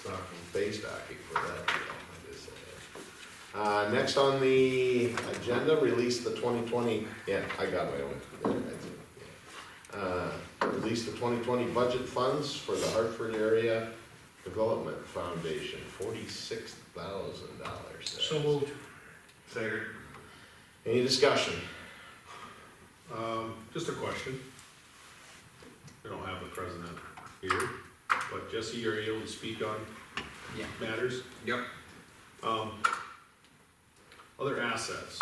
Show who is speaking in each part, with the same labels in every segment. Speaker 1: stocking, face stocking for that deal, I just said that. Uh, next on the agenda, release the twenty twenty, yeah, I got my own. Yeah, I do, yeah. Uh, release the twenty twenty budget funds for the Hartford Area Development Foundation, forty-six thousand dollars.
Speaker 2: So moved.
Speaker 3: Second.
Speaker 1: Any discussion?
Speaker 3: Um, just a question. We don't have the president here, but Jesse, you're able to speak on
Speaker 2: Yeah.
Speaker 3: matters?
Speaker 4: Yep.
Speaker 3: Um, other assets.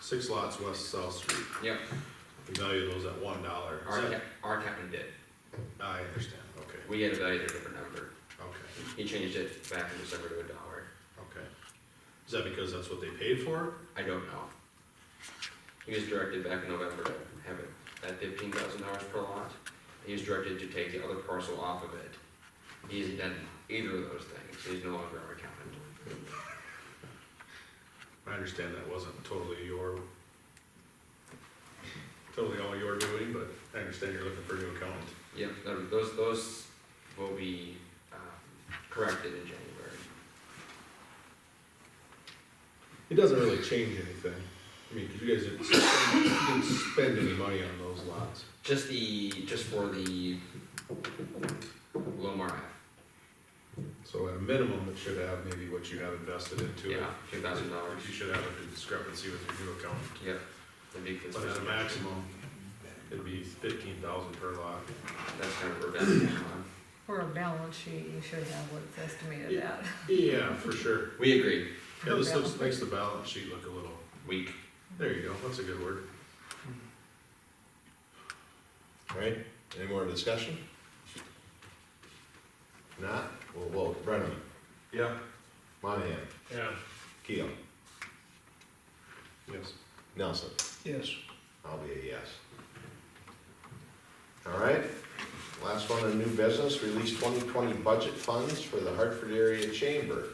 Speaker 3: Six lots west of South Street,
Speaker 4: Yep,
Speaker 3: we value those at one dollar.
Speaker 4: our, cap- our captain did,
Speaker 3: I understand, okay,
Speaker 4: we had evaluated a different number,
Speaker 3: okay,
Speaker 4: he changed it back in December to a dollar,
Speaker 3: okay. Is that because that's what they paid for?
Speaker 4: I don't know. He was directed back in November to have it at fifteen thousand dollars per lot, he was directed to take the other parcel off of it. He hasn't done either of those things, he's no longer our captain.
Speaker 3: I understand that wasn't totally your, totally all your doing, but I understand you're looking for a new accountant.
Speaker 4: Yep, tho- those, those will be, um, corrected in January.
Speaker 3: It doesn't really change anything. I mean, 'cause you guys didn't spend, didn't spend any money on those lots.
Speaker 4: Just the, just for the Lomar half,
Speaker 3: So at a minimum, it should have maybe what you have invested into it.
Speaker 4: yeah, two thousand dollars,
Speaker 3: You should have a discrepancy with your new accountant.
Speaker 4: yep. that'd be
Speaker 3: But at a
Speaker 4: consistent.
Speaker 3: maximum, it'd be fifteen thousand per lot.
Speaker 4: That's kind of revenge on.
Speaker 5: For a balance sheet, you should have what it's estimated
Speaker 3: Yeah.
Speaker 5: at.
Speaker 3: Yeah, for sure.
Speaker 4: We agree,
Speaker 3: Yeah, this looks, makes the balance sheet look a little,
Speaker 4: weak.
Speaker 3: there you go, that's a good word.
Speaker 1: All Right, any more discussion? Not, well, well, Brennan,
Speaker 3: Yeah.
Speaker 1: Monahan,
Speaker 2: Yeah.
Speaker 1: Keel,
Speaker 3: Yes.
Speaker 1: Nelson,
Speaker 2: Yes.
Speaker 1: I'll be a yes. All right, last one on new business, release twenty twenty budget funds for the Hartford Area Chamber.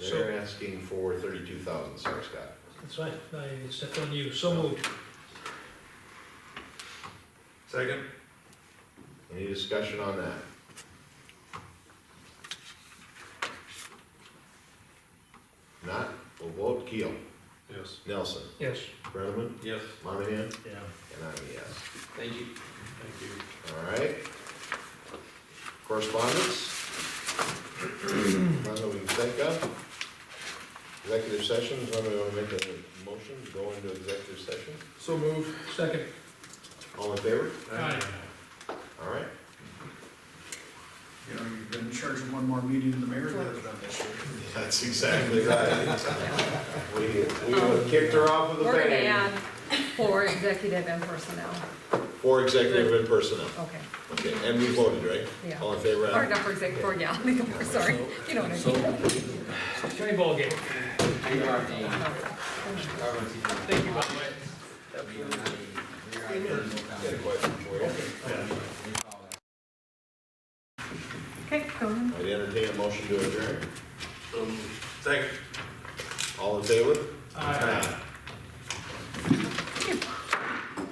Speaker 1: They're asking for thirty-two thousand, sorry Scott.
Speaker 2: That's right, I stepped on you, so moved.
Speaker 3: Second?
Speaker 1: Any discussion on that? Not, we'll vote Keel,
Speaker 3: Yes.
Speaker 1: Nelson,
Speaker 2: Yes.
Speaker 1: Brennan,
Speaker 3: Yes.
Speaker 1: Monahan,
Speaker 2: Yeah.
Speaker 1: and I'm a yes.
Speaker 4: Thank you.
Speaker 3: Thank you.
Speaker 1: All right. Correspondence? None that we can think of. Executive session, does anybody want to make a motion, to go into executive session?
Speaker 2: So moved. Second.
Speaker 1: All in favor?
Speaker 2: Aye.
Speaker 1: All right.
Speaker 6: You know, you've been charging one more meeting than the mayor has done this year.
Speaker 1: That's exactly right. We, we would've kicked her off with a
Speaker 5: We're gonna
Speaker 1: bang.
Speaker 5: add for executive and personnel,
Speaker 1: For executive and personnel.
Speaker 5: okay,
Speaker 1: Okay, and we voted, right?
Speaker 5: yeah.
Speaker 1: All in favor?
Speaker 5: Or
Speaker 1: aye?
Speaker 5: not for exec, for, yeah, we're sorry, you know what I mean.
Speaker 2: Johnny Ballgame.
Speaker 4: You are the.
Speaker 2: Thank you, by the way.
Speaker 1: Got a question for you.
Speaker 5: Okay, go ahead.
Speaker 1: I'd entertain a motion to adjourn.
Speaker 3: Second.
Speaker 1: All in favor?
Speaker 2: Aye.
Speaker 1: Aye.